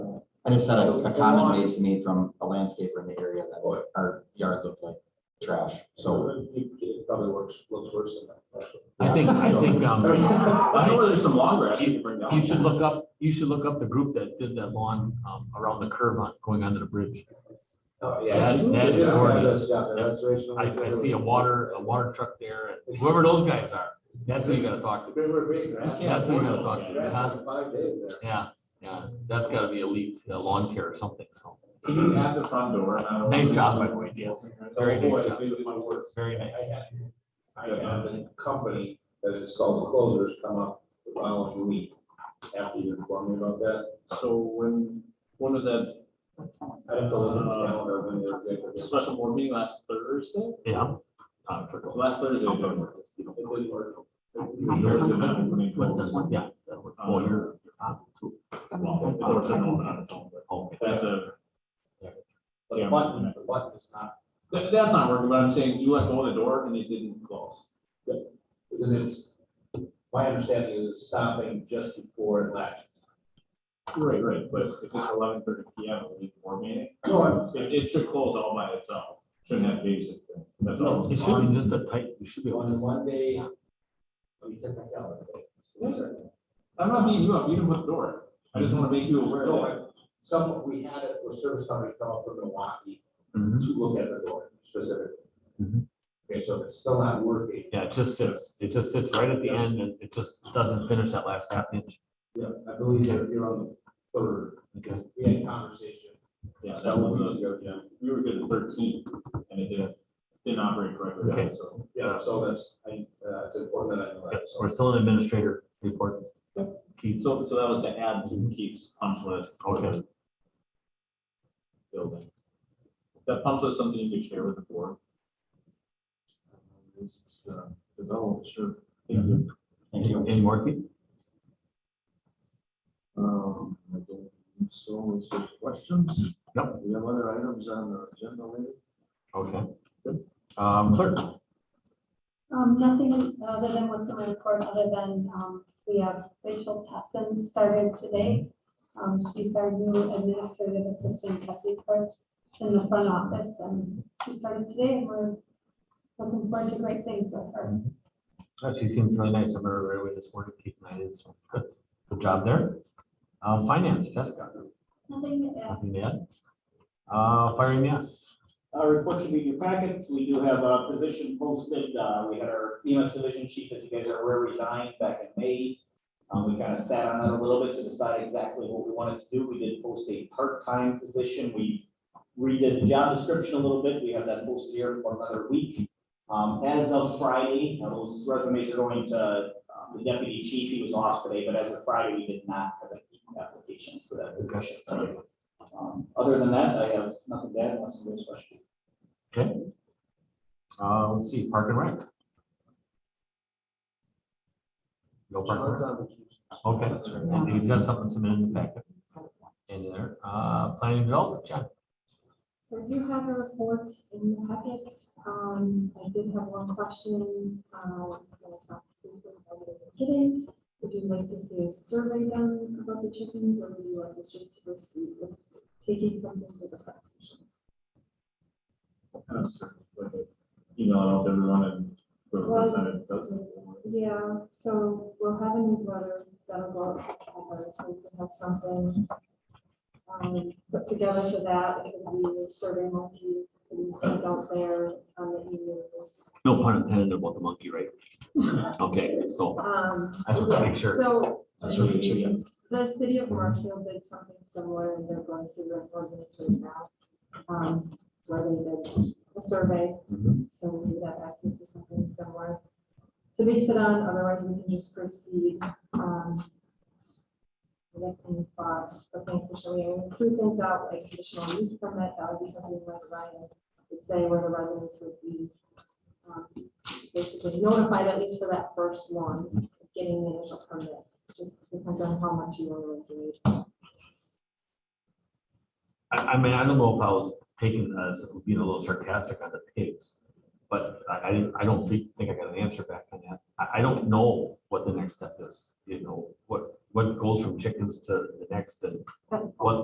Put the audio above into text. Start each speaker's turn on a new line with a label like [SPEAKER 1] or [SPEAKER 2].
[SPEAKER 1] I just had a a comment made to me from a landscaper in the area that what our yard looked like trash, so.
[SPEAKER 2] So it probably works, looks worse than that.
[SPEAKER 3] I think, I think, um,
[SPEAKER 2] I know there's some long grass you can bring down.
[SPEAKER 3] you should look up, you should look up the group that did that lawn, um, around the curve on, going under the bridge.
[SPEAKER 2] Oh,
[SPEAKER 3] That- that is gorgeous.
[SPEAKER 2] Yeah, the restoration.
[SPEAKER 3] I, I see a water, a water truck there, and whoever those guys are, that's who you gotta talk to.
[SPEAKER 2] They were big grass.
[SPEAKER 3] That's what we gotta talk to,
[SPEAKER 2] Grass
[SPEAKER 3] huh?
[SPEAKER 2] in Five days there.
[SPEAKER 3] Yeah, yeah, that's gotta be elite uh, lawn care or something, so.
[SPEAKER 2] Can you add the front door? and I don't-
[SPEAKER 3] Nice job, by the way, Dan. Very nice
[SPEAKER 2] Otherwise,
[SPEAKER 3] job.
[SPEAKER 2] they would not work.
[SPEAKER 3] Very
[SPEAKER 2] I had, I had a company that installed closers come up the following week after you informed me about that.
[SPEAKER 4] So when, when was that
[SPEAKER 2] I don't know, the calendar when they're
[SPEAKER 4] The
[SPEAKER 2] good.
[SPEAKER 4] special board meeting last Thursday?
[SPEAKER 3] Yeah. Uh, for-
[SPEAKER 4] Last Thursday. it didn't work. It didn't work.
[SPEAKER 3] But that's, yeah, that would, well, you're, you're on too.
[SPEAKER 4] Well, it works on all- on its own, but
[SPEAKER 3] Okay.
[SPEAKER 4] That's a,
[SPEAKER 2] But the button, the button is not,
[SPEAKER 4] that- that's not working, but I'm saying you let go of the door and it didn't close.
[SPEAKER 2] because it's, my understanding is it's stopping just before it latches.
[SPEAKER 4] Right, right, but if it's eleven thirty P M, we need more meeting.
[SPEAKER 2] No, I-
[SPEAKER 4] It, it should close all by itself. Shouldn't have basic. That's all.
[SPEAKER 3] It should be just a tight, we should be able
[SPEAKER 2] On
[SPEAKER 3] to.
[SPEAKER 2] one day. Let me check my calendar.
[SPEAKER 4] Yes, I'm not beating you up, you didn't put the door. I just want to make you aware
[SPEAKER 2] No,
[SPEAKER 4] that.
[SPEAKER 3] Oh,
[SPEAKER 2] I- Some, we had a a service company come up from Milwaukee to
[SPEAKER 3] Mhm.
[SPEAKER 2] look at the door specifically.
[SPEAKER 4] Mm-hmm.
[SPEAKER 3] Mhm.
[SPEAKER 2] Okay, so if it's still not working.
[SPEAKER 3] Yeah, it just sits, it just sits right at the end and it just doesn't finish that last half inch.
[SPEAKER 2] Yeah, I believe you're, you're on the third.
[SPEAKER 3] Okay.
[SPEAKER 2] We had a conversation.
[SPEAKER 4] Yeah, that was, a- yeah, we were good at thirteen and it didn't, didn't operate correctly.
[SPEAKER 3] Okay.
[SPEAKER 4] So
[SPEAKER 2] Yeah, so that's, I, uh, it's important that I know that.
[SPEAKER 3] Yes,
[SPEAKER 2] so.
[SPEAKER 3] We're still in administrator report. Keith,
[SPEAKER 4] So, so that was to add to Keith's punch list.
[SPEAKER 3] Okay.
[SPEAKER 4] Building. That punch list, something you could share with the board. This is, uh, developed, sure. Thank you.
[SPEAKER 1] Thank you.
[SPEAKER 3] any more, Keith?
[SPEAKER 4] Um, I don't think So, is there questions?
[SPEAKER 3] Nope.
[SPEAKER 4] We have other items on the agenda later?
[SPEAKER 3] Okay. Um, clerk,
[SPEAKER 5] Um, nothing other than what's in my report, other than, um, we have Rachel Tesson started today. Um, she's our new administrative assistant deputy clerk in the front office, and she started today, and we're looking forward to great things with her.
[SPEAKER 3] uh, she seems really nice. I met her right away this morning, Keith and I did, so good, good job there. Um, finance, Jessica,
[SPEAKER 5] Nothing, uh,
[SPEAKER 3] nothing to add? Uh, firing yes.
[SPEAKER 6] Uh, report should be in your packets. We do have a position posted. Uh, we had our EMS division chief, as you guys are aware, resigned back in May. Um, we kind of sat on that a little bit to decide exactly what we wanted to do. We did post a part-time position. We redid the job description a little bit. We have that posted here for another week. Um, as of Friday, now those resumes are going to um, the deputy chief. He was off today, but as of Friday, we did not have any applications for that position. Um, Other than that, I have nothing to add unless you have questions.
[SPEAKER 3] Uh, let's see, park and rec. No park
[SPEAKER 2] Sean's
[SPEAKER 3] and rec.
[SPEAKER 2] on vacation.
[SPEAKER 3] Okay, I think he's got something submitted in the packet. In there, uh, planning and development, John.
[SPEAKER 5] So I do have a report in the packet. Um, I did have one question, um, that I talked to you about at the beginning. Would you like to see a survey done about the chickens, or would you like us just to proceed with taking something to the front?
[SPEAKER 4] Kind of sort of like, You know, I don't know if everyone and whoever
[SPEAKER 5] Well-
[SPEAKER 4] presented doesn't.
[SPEAKER 5] Yeah, so we'll have a newsletter that'll go out to everybody, so we can have something um, put together for that. It can be a survey monkey, that we send out there on the emails.
[SPEAKER 3] No pun intended about the monkey, right? Okay, so
[SPEAKER 5] Um,
[SPEAKER 3] I just want to make sure.
[SPEAKER 5] So
[SPEAKER 3] That's what we should
[SPEAKER 5] the city of Marshfield did something similar and they're going through an ordinance right now. um, Where they did a survey,
[SPEAKER 3] Mhm.
[SPEAKER 5] so we would have access to something similar to base it on, otherwise we can just proceed. um, I guess any thoughts, but officially, and prove things out, like conditional use permit, that would be something like Ryan would say where the residents would be. um, Basically notified at least for that first one getting the initial permit, just depends on how much you want to engage.
[SPEAKER 3] I, I mean, I don't know if I was taken as being a little sarcastic on the pigs, but I, I, didn't- I don't think, think I got an answer back on that. I, I don't know what the next step is, you know, what, what goes from chickens to the next and
[SPEAKER 5] But-
[SPEAKER 3] what